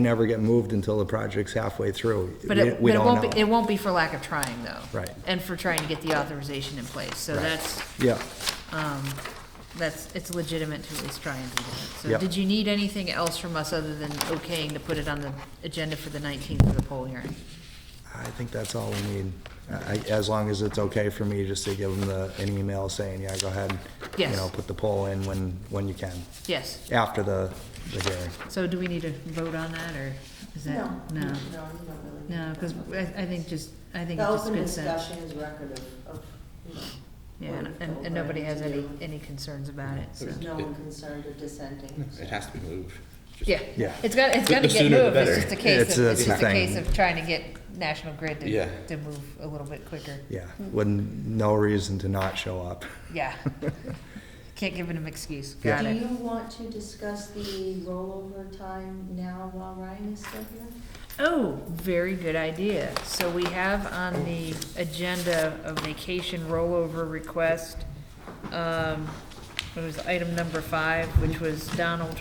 never get moved until the project's halfway through. But We- it, we but it don't won't be, know. it won't be for lack of trying, though. Right. And for trying to get the authorization in place, so that's, um, Yeah, that's, it's legitimate to at least try and do that. So Yep. did you need anything else from us other than okaying to put it on the agenda for the nineteenth for the poll hearing? I think that's all we need. I, as long as it's okay for me just to give them the, an email saying, yeah, go ahead. You Yes. know, put the poll in when, when you can, Yes, after the, the hearing. so do we need to vote on that, or is that? No. No, you don't really. need No, to. because I, I think just, I think The it's just open good sense. discussion is record of, of, you know. Yeah, what and, we felt and- we and nobody had has to any, do. any concerns about it, so. There's no one concerned or dissenting. so. It has to be moved. Just- Yeah. Yeah. It's got, it's The- got to the get sooner the moved, it's better. just a It's- case of, that's it's the just a case thing. of trying to get National Grid Yeah. to, to move a little bit quicker, Yeah, with no reason to not show up. yeah. Can't give them an excuse, Yeah. got Do it. you want to discuss the rollover time now while Ryan is still here? Oh, very good idea, so we have on the agenda a vacation rollover request, um, it was item number five, which was Donald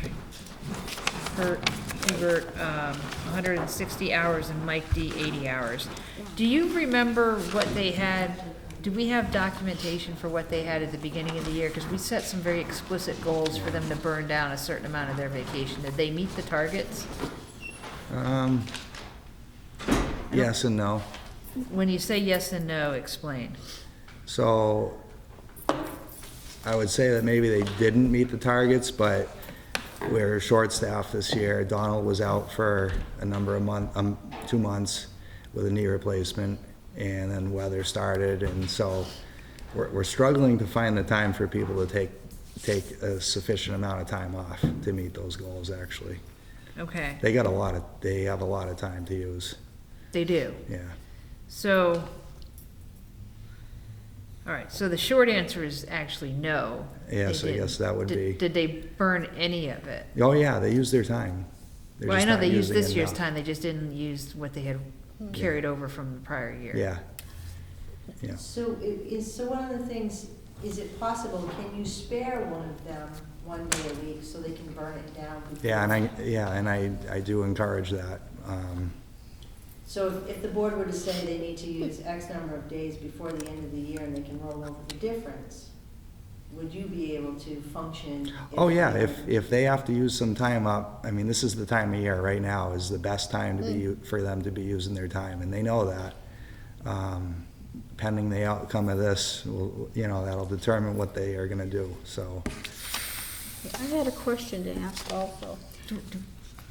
Hurt, Hubert, um, hundred and sixty hours and Mike D eighty hours. Do you remember what they had, do we have documentation for what they had at the beginning of the year? Because we set some very explicit goals for them to burn down a certain amount of their vacation, did they meet the targets? Um, yes and no. When you say yes and no, explain. So I would say that maybe they didn't meet the targets, but we're short-staffed this year. Donald was out for a number of month, um, two months with a knee replacement, and then weather started, and so we're, we're struggling to find the time for people to take, take a sufficient amount of time off to meet those goals, actually. Okay, They got a lot of, they have a lot of time to use, they do. yeah. So, all right, so the short answer is actually no. they Yes, I didn't. guess that would Did- be- Did they burn any of it? Oh, yeah, they use their time. They're Well, I just know not they used using it this year's now. time, they just didn't use what they had carried over from the prior year. Yeah. Yeah. So i- is, so one of the things, is it possible, can you spare one of them one day a week so they can burn it down? before- Yeah, and I, yeah, and I, I do encourage that. Um, So if- if the board were to say they need to use X number of days before the end of the year and they can roll over the difference, would you be able to function? if- Oh, yeah, if, if they have to use some time up, I mean, this is the time of year, right now is the best time to be, u- for them to be using their time, and they know that. Um, Pending the outcome of this, will- you know, that'll determine what they are gonna do, so. I had a question to ask also. Do- do-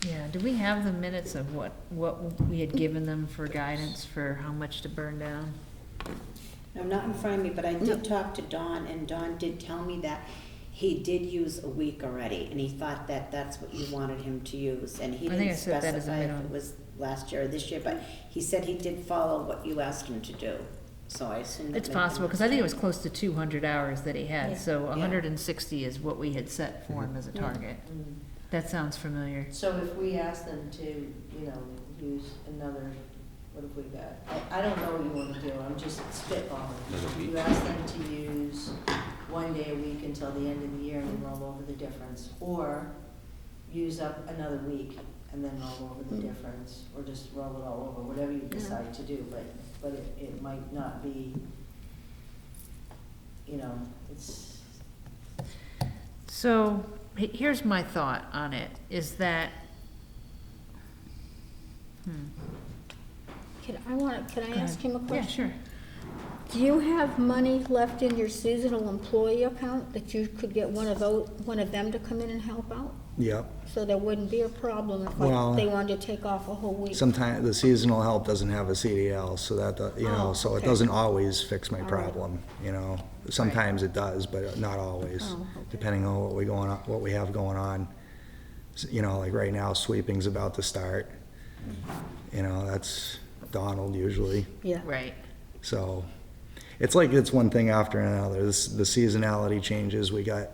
Yeah, do we have the minutes of what, what we had given them for guidance for how much to burn down? I'm not in front of me, but I did talk to Don, and Don did tell me that he did use a week already, and he thought that that's what you wanted him to use, and he I think I didn't said that as a specify if minimum. it was last year or this year, but he said he did follow what you asked him to do, so I assume that. It's possible, because I think it was close to two hundred hours that he Yeah. had, so Yeah. hundred and sixty is what we had set for him as a target. Mm. That sounds familiar. So if we ask them to, you know, use another, what have we got? I, I don't know what you wanna do, I'm just Another spitballing. week? You ask them to use one day a week until the end of the year and then roll over the difference. Or use up another week and then roll over the difference, or just roll it all over, whatever you decide to do, but, but it, it might not be, you know, it's, So, he- here's my thought on it, is that, hmm, Can I want, can I Go ask ahead. him a yeah, question? sure. Do you have money left in your seasonal employee account that you could get one of those, one of them to come in and help out? Yep, So there wouldn't be a problem if Well- like, they wanted to take off a whole week? sometimes the seasonal help doesn't have a CDL, so that, do- you know, Oh, so it okay. doesn't always fix my All right. problem, you know? Sometimes it does, but not always, Oh, okay. depending on what we going on, what we have going on. S- You know, like right now, sweeping's about to start. You know, that's Donald usually, Yeah. Right, so. It's like it's one thing after another. This, the seasonality changes, we got,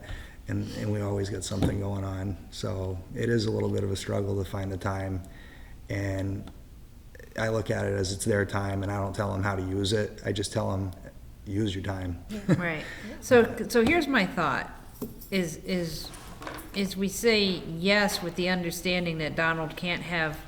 and, and we always got something going on. So it is a little bit of a struggle to find the time. And I look at it as it's their time and I don't tell them how to use it. I just tell them, use your time. right. So, so here's my thought, is, is, is we say yes with the understanding that Donald can't have